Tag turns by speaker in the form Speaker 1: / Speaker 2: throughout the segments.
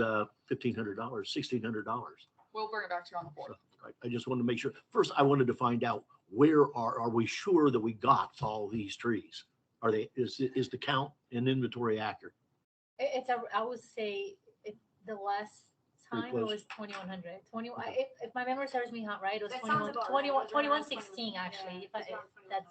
Speaker 1: uh, fifteen hundred dollars, sixteen hundred dollars.
Speaker 2: We'll bring it back to you on the fourth.
Speaker 1: I just wanted to make sure, first, I wanted to find out where are, are we sure that we got all these trees? Are they, is, is the count and inventory accurate?
Speaker 3: It- It's, a- I would say, it, the last
Speaker 1: Pretty
Speaker 3: time it
Speaker 1: close.
Speaker 3: was twenty-one hundred, twenty, I- if, if my memory serves me hot, right, it was
Speaker 4: That sounds
Speaker 3: twenty-one,
Speaker 4: about right.
Speaker 3: twenty-one,
Speaker 4: It was
Speaker 3: twenty-one
Speaker 4: around 21,
Speaker 3: sixteen,
Speaker 4: yeah,
Speaker 3: actually, if I,
Speaker 4: it's
Speaker 3: if
Speaker 4: around
Speaker 3: that's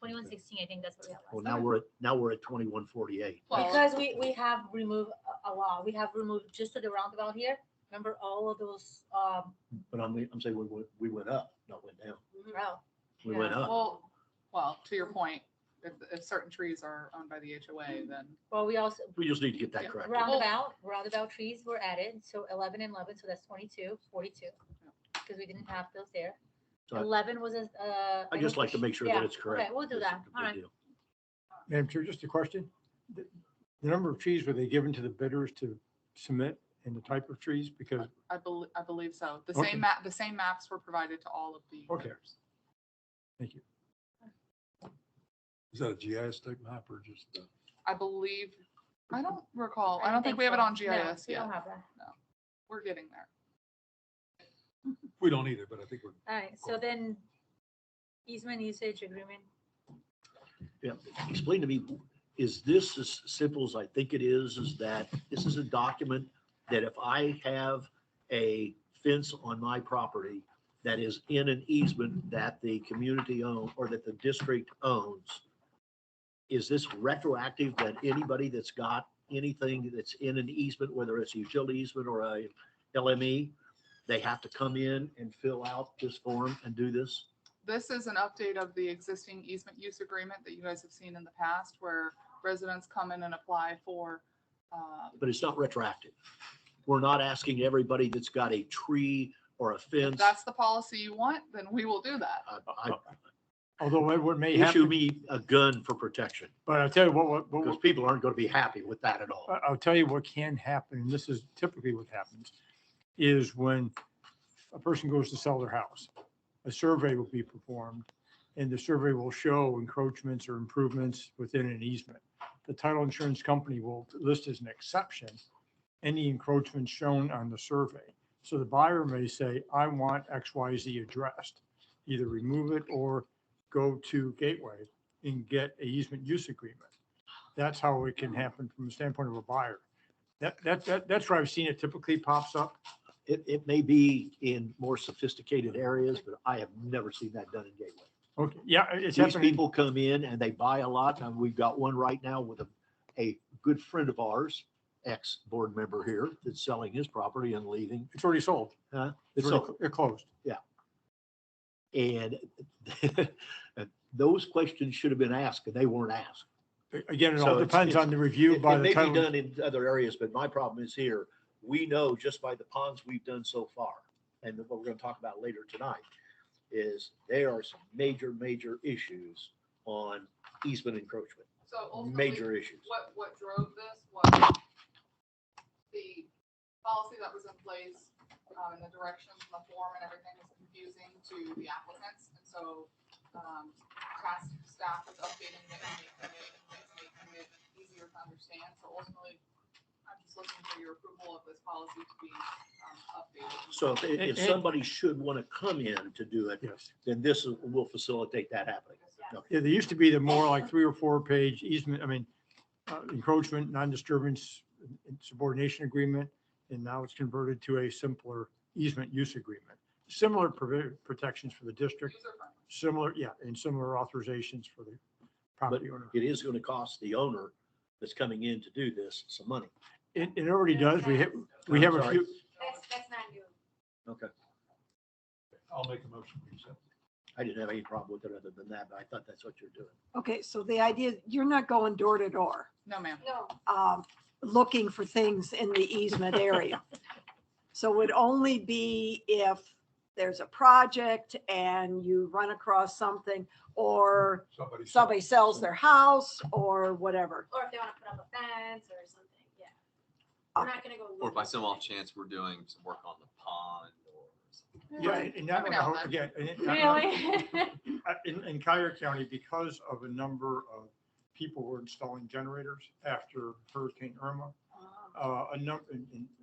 Speaker 4: 2100.
Speaker 3: twenty-one sixteen, I think that's what we had last.
Speaker 1: Well,
Speaker 3: time.
Speaker 1: now we're at, now we're at twenty-one forty-eight.
Speaker 2: Well,
Speaker 3: Because we, we have removed a- a lot, we have removed just to the roundabout here, remember all of those, um,
Speaker 1: But I'm, I'm saying we went, we went up, not went down.
Speaker 4: Mm-hmm.
Speaker 3: route.
Speaker 1: We went
Speaker 3: Yeah.
Speaker 1: up.
Speaker 2: well, well, to your point, if, if certain trees are owned by the HOA, then
Speaker 3: Well, we also,
Speaker 1: We just need to get that correct.
Speaker 3: roundabout, roundabout trees were added, so eleven and eleven, so that's 22, 42, because we didn't have those there.
Speaker 1: So I-
Speaker 3: Eleven was, a- uh.
Speaker 1: I just like to make sure
Speaker 3: Yeah,
Speaker 1: that it's correct.
Speaker 3: okay, we'll do
Speaker 1: That's
Speaker 3: that.
Speaker 1: a good
Speaker 3: All right.
Speaker 1: deal.
Speaker 5: Madam Chair, just a question. The the number of trees were they given to the bidders to submit and the type of trees? Because,
Speaker 2: I believe, I believe so. The
Speaker 5: Okay.
Speaker 2: same map, the same maps were provided to all of the
Speaker 5: Okay.
Speaker 2: bidders.
Speaker 6: Is that a GIS type map or just? uh,
Speaker 2: I believe, I don't recall, I don't think we have it
Speaker 3: so.
Speaker 2: on
Speaker 3: No,
Speaker 2: GIS
Speaker 3: We
Speaker 2: yet.
Speaker 3: don't have that.
Speaker 2: We're getting there.
Speaker 6: We don't either, but I think we're,
Speaker 3: All right, so
Speaker 6: Cool.
Speaker 3: then easement usage agreement,
Speaker 1: Explain to me, is this as simple as I think it is, is that this is a document that if I have a fence on my property that is in an easement that the community own or that the district owns, is this retroactive that anybody that's got anything that's in an easement, whether it's a utility easement or a LME, they have to come in and fill out this form and do this?
Speaker 2: This is an update of the existing easement use agreement that you guys have seen in the past where residents come in and apply for, um,
Speaker 1: but it's not retroactive. We're not asking everybody that's got a tree or a
Speaker 2: if
Speaker 1: fence,
Speaker 2: that's the policy you want, then we will do that.
Speaker 1: uh, I
Speaker 5: although it would may
Speaker 1: issue
Speaker 5: happen,
Speaker 1: me a gun for protection,
Speaker 5: but I'll tell you what, what, what-
Speaker 1: because people aren't going to be happy with that at all.
Speaker 5: I- I'll tell you what can happen, and this is typically what happens, is when a person goes to sell their house, a survey will be performed, and the survey will show encroachments or improvements within an easement. The title insurance company will list as an exception any encroachments shown on the survey. So the buyer may say, I want X, Y, Z addressed, either remove it or go to Gateway and get a easement use agreement that's how it can happen from the standpoint of a buyer. That, that, that, that's where I've seen it typically pops up.
Speaker 1: It, it may be in more sophisticated areas, but I have never seen that done in Gateway.
Speaker 5: Okay, yeah, it's
Speaker 1: These
Speaker 5: happening.
Speaker 1: people come in and they buy a lot, and we've got one right now with a, a good friend of ours, ex-board member here, that's selling his property and leaving.
Speaker 5: It's already sold.
Speaker 1: Huh?
Speaker 5: It's
Speaker 1: So-
Speaker 5: already, cl- it closed.
Speaker 1: And those questions should have been asked, and they weren't asked.
Speaker 5: A- Again, it
Speaker 1: So
Speaker 5: all
Speaker 1: it's-
Speaker 5: depends
Speaker 1: it's-
Speaker 5: on the review
Speaker 1: It-
Speaker 5: by
Speaker 1: It
Speaker 5: the
Speaker 1: may be
Speaker 5: title.
Speaker 1: done in other areas, but my problem is here, we know just by the ponds we've done so far, and what we're gonna talk about later tonight, is there are some major, major issues on easement encroachment,
Speaker 2: So
Speaker 1: major issues.
Speaker 2: what, what drove this was the policy that was in place, um, and the directions and the form and everything was confusing to the applicants. And so, um, task staff was updating it and making it, making it easier to understand. So ultimately, I'm just looking for your approval of this policy to be, um, updated.
Speaker 1: So if,
Speaker 5: And-
Speaker 1: if
Speaker 5: and-
Speaker 1: somebody should wanna come in to do it,
Speaker 5: Yes.
Speaker 1: then this is- will facilitate that happening.
Speaker 5: Yeah, there used to be the more like three or four page easement, I mean, uh, encroachment, non-disturbance, and subordination agreement. And now it's converted to a simpler easement use agreement. Similar provi- protections for the district,
Speaker 2: User friendly.
Speaker 5: similar, yeah, and similar authorizations for the property owner.
Speaker 1: It is gonna cost the owner that's coming in to do this some money.
Speaker 5: It, it already does. We have, we have a
Speaker 1: Sorry.
Speaker 5: few,
Speaker 4: That's, that's not new.
Speaker 6: I'll make a motion. we accept.
Speaker 1: I didn't have any problem with it other than that, but I thought that's what you're doing.
Speaker 7: Okay, so the idea, you're not going door to door,
Speaker 2: No, ma'am.
Speaker 4: No,
Speaker 7: um, looking for things in the easement area. So it would only be if there's a project and you run across something or
Speaker 6: Somebody. said-
Speaker 7: somebody sells their house or whatever.
Speaker 4: or if they want to put up a fence or something, yeah.
Speaker 7: Uh,
Speaker 4: We're not gonna go.
Speaker 8: Or by
Speaker 4: looking
Speaker 8: some
Speaker 4: for
Speaker 8: off
Speaker 4: it.
Speaker 8: chance, we're doing some work on the pond or something.
Speaker 5: yeah, and that
Speaker 2: Every
Speaker 5: one,
Speaker 2: now
Speaker 5: I
Speaker 2: and
Speaker 5: hope-
Speaker 2: then.
Speaker 5: again, and it-
Speaker 3: really?
Speaker 5: uh, in, in Cuyahoga County, because of a number of people were installing generators after Hurricane Irma,
Speaker 4: Um,
Speaker 5: uh, a number, and, and